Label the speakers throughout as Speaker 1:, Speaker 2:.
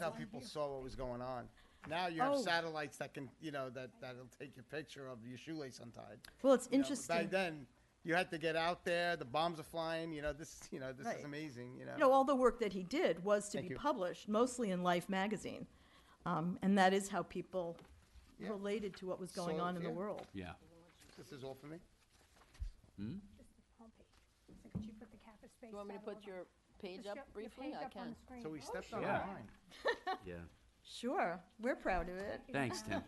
Speaker 1: how people saw what was going on. Now you have
Speaker 2: Oh.
Speaker 1: satellites that can, you know, that, that'll take your picture of your shoelace untied.
Speaker 2: Well, it's
Speaker 1: You know, but Back
Speaker 2: interesting.
Speaker 1: then, you had to get out there, the bombs are flying, you know, this, you know, this is
Speaker 2: Right.
Speaker 1: amazing, you know.
Speaker 2: You know, all the work that he did was to
Speaker 1: Thank
Speaker 2: be
Speaker 1: you.
Speaker 2: published, mostly in Life magazine. Um, and that is how people
Speaker 1: Yeah.
Speaker 2: related to what was going
Speaker 1: So,
Speaker 2: on in the
Speaker 1: yeah.
Speaker 2: world.
Speaker 3: Yeah.
Speaker 1: This is all for me.
Speaker 4: Just the homepage. So could you put the Kappa Space?
Speaker 5: You want me to
Speaker 4: Shuttle
Speaker 5: put
Speaker 4: on-
Speaker 5: your page
Speaker 4: Just
Speaker 5: up
Speaker 4: your- your
Speaker 5: briefly?
Speaker 4: page up
Speaker 5: I
Speaker 4: on
Speaker 5: can.
Speaker 4: the screen. Oh,
Speaker 1: So we stepped on
Speaker 3: sure.
Speaker 1: our line.
Speaker 3: Yeah.
Speaker 2: Sure, we're proud of it.
Speaker 3: Thanks, Tim.
Speaker 1: Look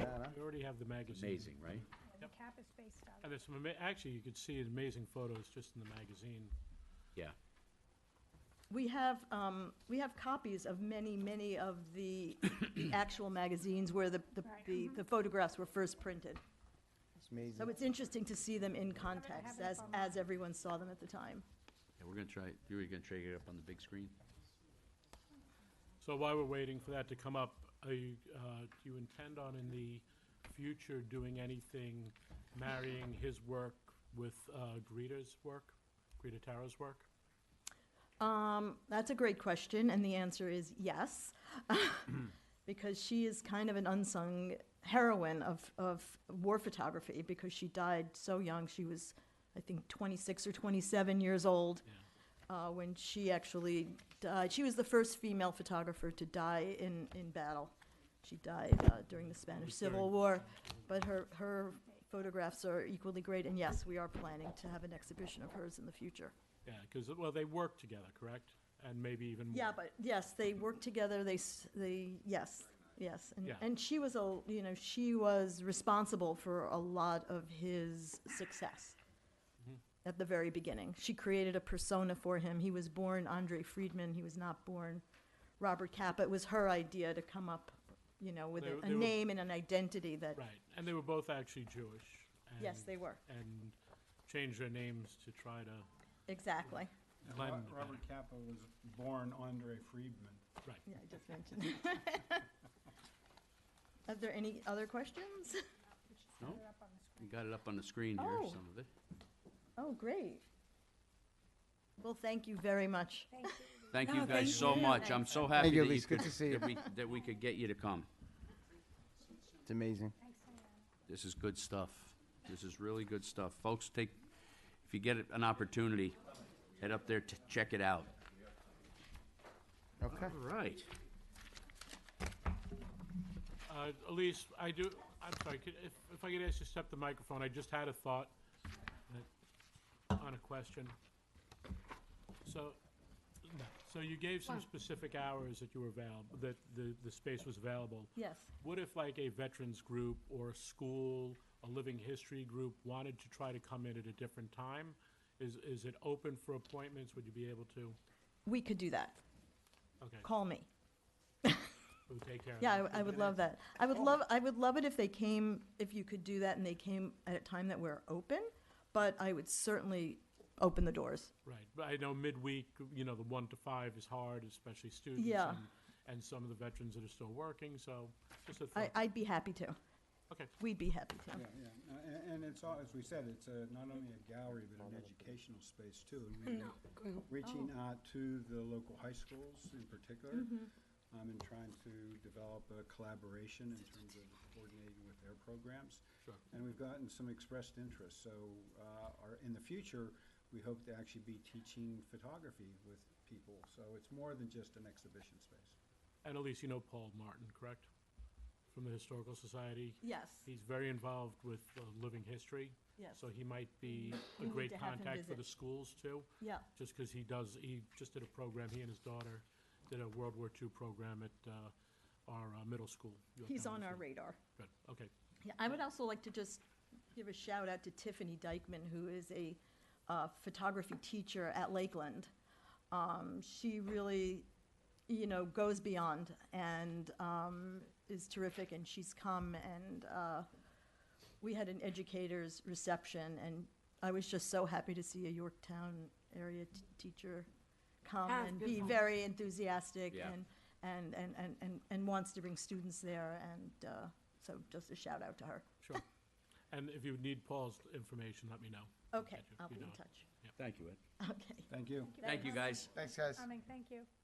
Speaker 1: at that, huh?
Speaker 6: We already have the magazine.
Speaker 3: Amazing, right?
Speaker 4: The Kappa Space Shuttle.
Speaker 6: And there's some, ama- actually, you could see amazing photos just in the magazine.
Speaker 3: Yeah.
Speaker 2: We have, um, we have copies of many, many of the actual magazines where the, the-
Speaker 4: Right.
Speaker 2: the, the photographs were first printed.
Speaker 1: It's amazing.
Speaker 2: So it's interesting to see them in context as, as everyone saw them at the time.
Speaker 3: Yeah, we're gonna try, you were gonna try to get it up on the big screen?
Speaker 6: So while we're waiting for that to come up, are you, uh, do you intend on in the future doing anything, marrying his work with, uh, Greta's work? Greta Taro's work?
Speaker 2: Um, that's a great question, and the answer is yes, because she is kind of an unsung heroine of, of war photography because she died so young. She was, I think, 26 or 27 years old uh, when she actually died. She was the first female photographer to die in, in battle. She died uh, during the Spanish Civil War, but her, her photographs are equally great, and yes, we are planning to have an exhibition of hers in the future.
Speaker 6: Yeah, because, well, they work together, correct? And maybe even more.
Speaker 2: Yeah, but yes, they worked together, they, s- they, yes, yes. And,
Speaker 6: Yeah.
Speaker 2: and she was a, you know, she was responsible for a lot of his success
Speaker 6: Mm-hmm.
Speaker 2: at the very beginning. She created a persona for him. He was born Andre Friedman, he was not born Robert Capa. It was her idea to come up, you know, with
Speaker 6: They
Speaker 2: a,
Speaker 6: were-
Speaker 2: a
Speaker 6: they were-
Speaker 2: name and an identity that,
Speaker 6: Right, and they were both actually Jewish.
Speaker 2: yes,
Speaker 6: and-
Speaker 2: they were,
Speaker 6: And changed their names to try to
Speaker 2: exactly.
Speaker 7: And
Speaker 6: blend.
Speaker 7: Ro- Robert Capa was born Andre Friedman.
Speaker 6: Right.
Speaker 2: Yeah, I just mentioned. that. Are there any other questions?
Speaker 3: No?
Speaker 4: Put it up on the screen.
Speaker 3: We got it up on the screen here,
Speaker 2: Oh.
Speaker 3: some of it.
Speaker 2: Oh, great. Well, thank you very much.
Speaker 4: Thank you.
Speaker 3: Thank you
Speaker 5: No,
Speaker 3: guys
Speaker 5: thank
Speaker 3: so
Speaker 5: you.
Speaker 3: much. I'm so happy
Speaker 1: Thank you,
Speaker 3: that you
Speaker 1: Elise. Good
Speaker 3: could,
Speaker 1: to see
Speaker 3: that we, that we could get you to come.
Speaker 1: It's amazing.
Speaker 4: Thanks, Diane.
Speaker 3: This is good stuff. This is really good stuff. Folks, take, if you get an opportunity, head up there to check it out.
Speaker 1: Okay.
Speaker 3: All right.
Speaker 6: Uh, Elise, I do, I'm sorry, could, if, if I could ask you to step the microphone, I just had a thought that- on a question. So, no, so you gave some specific hours that you were available, that the, the space was available.
Speaker 2: Yes.
Speaker 6: What if like a veterans group or a school, a living history group wanted to try to come in at a different time? Is, is it open for appointments? Would you be able to?
Speaker 2: We could do that.
Speaker 6: Okay,
Speaker 2: Call me.
Speaker 6: we'll take care of that.
Speaker 2: Yeah, I w- I, would love that. I would love, I would love it if they came, if you could do that and they came at a time that we're open, but I would certainly open the doors.
Speaker 6: Right, but I know midweek, you know, the one to five is hard, especially students.
Speaker 2: Yeah.
Speaker 6: and- And some of the veterans that are still working, so just a
Speaker 2: I,
Speaker 6: thought.
Speaker 2: I'd be happy to.
Speaker 6: Okay,
Speaker 2: We'd be happy to.
Speaker 7: Yeah, yeah. A- a- And it's, all as we said, it's a- not only a gallery, but an educational space too. And we've been Reaching out to the local high schools in particular um, and trying to develop a collaboration in terms of coordinating with their programs.
Speaker 6: Sure.
Speaker 7: And we've gotten some expressed interest. So uh, our- in the future, we hope to actually be teaching photography with people. So it's more than just an exhibition space.
Speaker 6: and Elise, you know Paul Martin, correct? From the Historical Society?
Speaker 2: Yes,
Speaker 6: He's very involved with uh, living history,
Speaker 2: yes,
Speaker 6: so he might be a
Speaker 2: We need
Speaker 6: great
Speaker 2: to have him
Speaker 6: contact for
Speaker 2: visit.
Speaker 6: the schools too,
Speaker 2: yeah.
Speaker 6: just because he does, he just did a program, he and his daughter did a World War II program at uh, our uh, middle school. Yorktown
Speaker 2: He's on
Speaker 6: Middle
Speaker 2: our
Speaker 6: School.
Speaker 2: radar.
Speaker 6: Good, okay.
Speaker 2: Yeah, I would also like to just give a shout out to Tiffany Dykman, who is a uh, photography teacher at Lakeland. Um, She really, you know, goes beyond and um, is terrific, and she's come and uh, we had an educator's reception, and I was just so happy to see a Yorktown area t- teacher come
Speaker 5: Ah,
Speaker 2: and
Speaker 5: good
Speaker 2: be
Speaker 5: one.
Speaker 2: very enthusiastic
Speaker 3: Yeah.
Speaker 2: and, and, and, and, and, and wants to bring students there, and uh, so just a shout out to her.
Speaker 6: Sure. And if you need Paul's information, let me know. We'll
Speaker 2: Okay,
Speaker 6: get you-
Speaker 2: I'll
Speaker 6: you
Speaker 2: be in
Speaker 6: know it.
Speaker 2: touch.
Speaker 3: Thank you, Ed.
Speaker 2: Okay.
Speaker 7: Thank you.
Speaker 3: Thank you, guys.
Speaker 1: Thanks, guys.
Speaker 4: Coming, thank you.